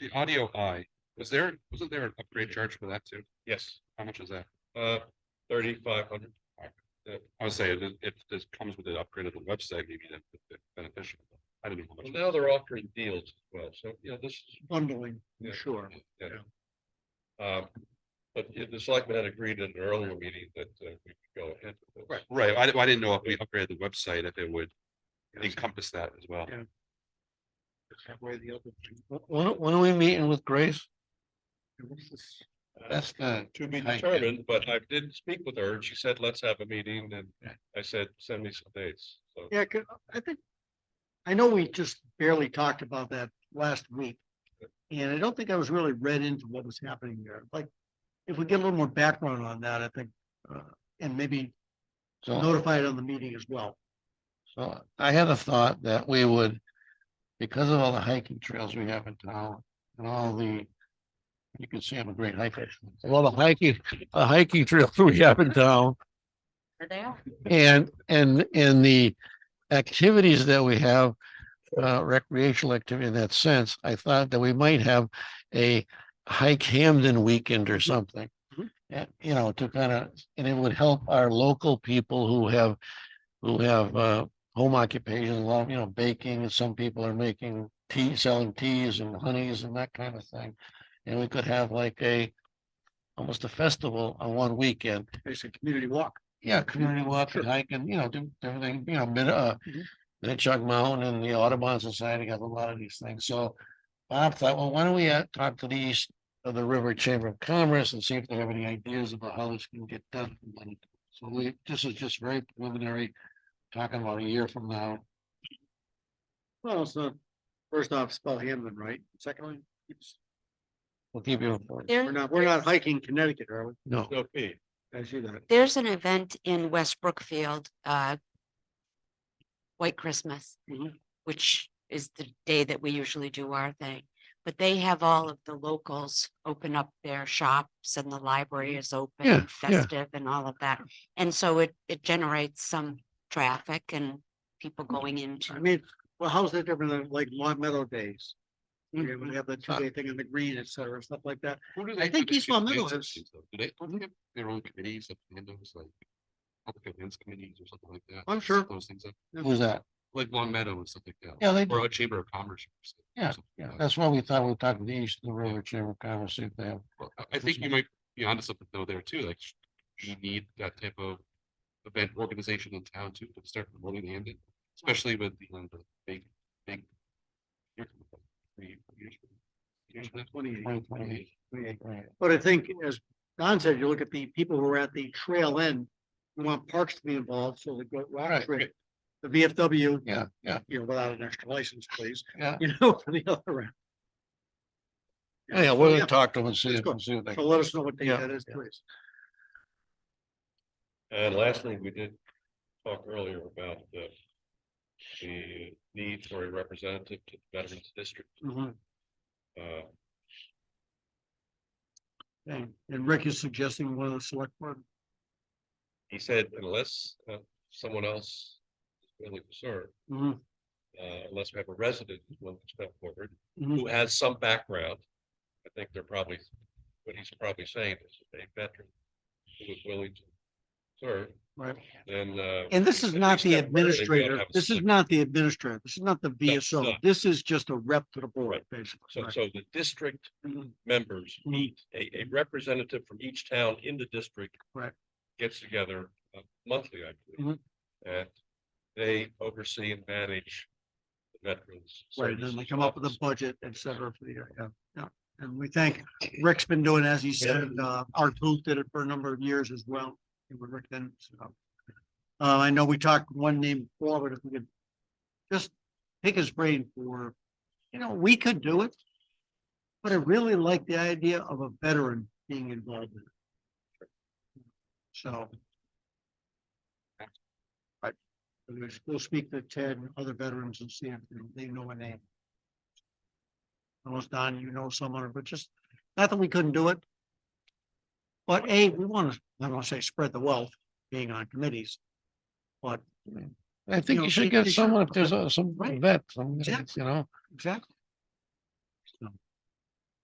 the audio I, was there, wasn't there an upgrade charge for that too? Yes, How much is that? uh, thirty-five hundred. I would say it, it, this comes with an upgrade of the website, maybe that that's beneficial. I didn't know how Well, much. now they're offering deals as well, so, you know, this is bundling, Yeah. sure. Um, but it- the selectmen had agreed at an earlier meeting that uh, we could go ahead. with this. Right, I, I didn't know if we upgraded the website, if it would encompass that as well. Yeah. When, when are we meeting with Grace? That's the. To be I- determined, but I did speak with her and she said, let's have a meeting and I said, send me some dates. So Yeah, 'cause I think, I know we just barely talked about that last week. And I don't think I was really read into what was happening there. Like, if we get a little more background on that, I think, uh, and maybe So, notify it on the meeting as well. so I had a thought that we would, because of all the hiking trails we have in town and all the. You can see I'm a great hiker. Well, the hiking, the hiking trails we have in town Are they all? and, and, and the activities that we have. Uh, recreational activity in that sense, I thought that we might have a hike Hamden weekend or something. Mhm. And, you know, to kind of, and it would help our local people who have, who have, uh, home occupations, a lot, of, you know, baking, and some people are making tea, selling teas and honeys and that kind of thing. And we could have like a, almost a festival on one weekend It's a community walk. yeah, community walk and hike and, you know, do everything, you know, mid, uh, Mhm. Minnetonka Mountain and the Audubon Society got a lot of these things, so. Bob thought, well, why don't we uh, talk to the east of the River Chamber of Commerce and see if they have any ideas about how this can get done. with money. So we, this is just very preliminary, talking about a year from now. Well, so first off, spell Hamlin right. Secondly, it's- We'll keep you informed. we're There, not, we're not hiking Connecticut, are we? No, no fee. I see that. there's an event in West Brookfield, uh. White Christmas, Mhm. which is the day that we usually do our thing. But they have all of the locals open up their shops and the Mm-hmm. library is open, Yeah, and yeah. festive and all of that. And so it, it generates some traffic and people going Mm-hmm. I into. mean, well, how's that different than like Long Meadow Days? You Mm-hmm. know, we have the two day thing in the green, et cetera, stuff like that. Who do I they do think the East Long Meadow conveyancing has- things, though? Do they, don't they have their own committees that handles like? Public events committees or something like that. I'm sure. Those things, up? who's that? like Long Meadow and something like that, Yeah, they, or a Chamber of Commerce. or something- Yeah, something yeah, like that. that's why we thought we'd talk to the east of the River Chamber of Commerce, see if they have. Well, I- I think you might be onto something though there too, like sh- you need that type of event organization in town too, to start promoting the Hamden, especially with the, um, the big, big. year coming up, three years from- years from now. Twenty twenty. Right. But I think as Don said, you look at the people who are at the trail end, we want parks to be involved, so the go rock Right. trip. The VFW, Yeah, yeah, you know, without an extra license, please, yeah. you know, for the other end. Yeah, we're gonna talk to them and see let's if, go. see what they. So let us know what day Yeah, that is, please. And lastly, we did talk earlier about the the need for a representative to the Veterans District. Mhm. Uh, And and Rick is suggesting one of the select board. he said unless uh, someone else is willing to serve, Mhm. uh, unless we have a resident who's willing to step forward, Mhm. who has some background. I think they're probably, what he's probably saying is a veteran who is willing to serve, Right. then. uh, And this is at not least the that person, they don't administrator, have a this is select- not the administrator, this is not the VSO, no. this is just a rep to the board, Right. basically. So, right? so the district Mhm. members, Neat. a, a representative from each town in the district. Right. Gets together uh, monthly, I believe, Mm-hmm. and they oversee and manage the veterans. Right, and then they services come up with a office. budget, et cetera, for the year, yeah, yeah. And we thank, Rick's been doing, as he said, uh, our group did it for a number of years as well. and with Rick then, so. Uh, I know we talked one name before, but if we could just pick his brain for, you know, we could do it. But I really like the idea of a veteran being involved in it. So. I, we'll speak to Ted and other veterans and see if they know a name. Unless Don, you know someone, but just, not that we couldn't do it. But A, we want to, I don't want to say spread the wealth being on committees. But I you think know, you they- should they get should- someone, if there's a- some Right. vet, some, you Exactly. know, exactly,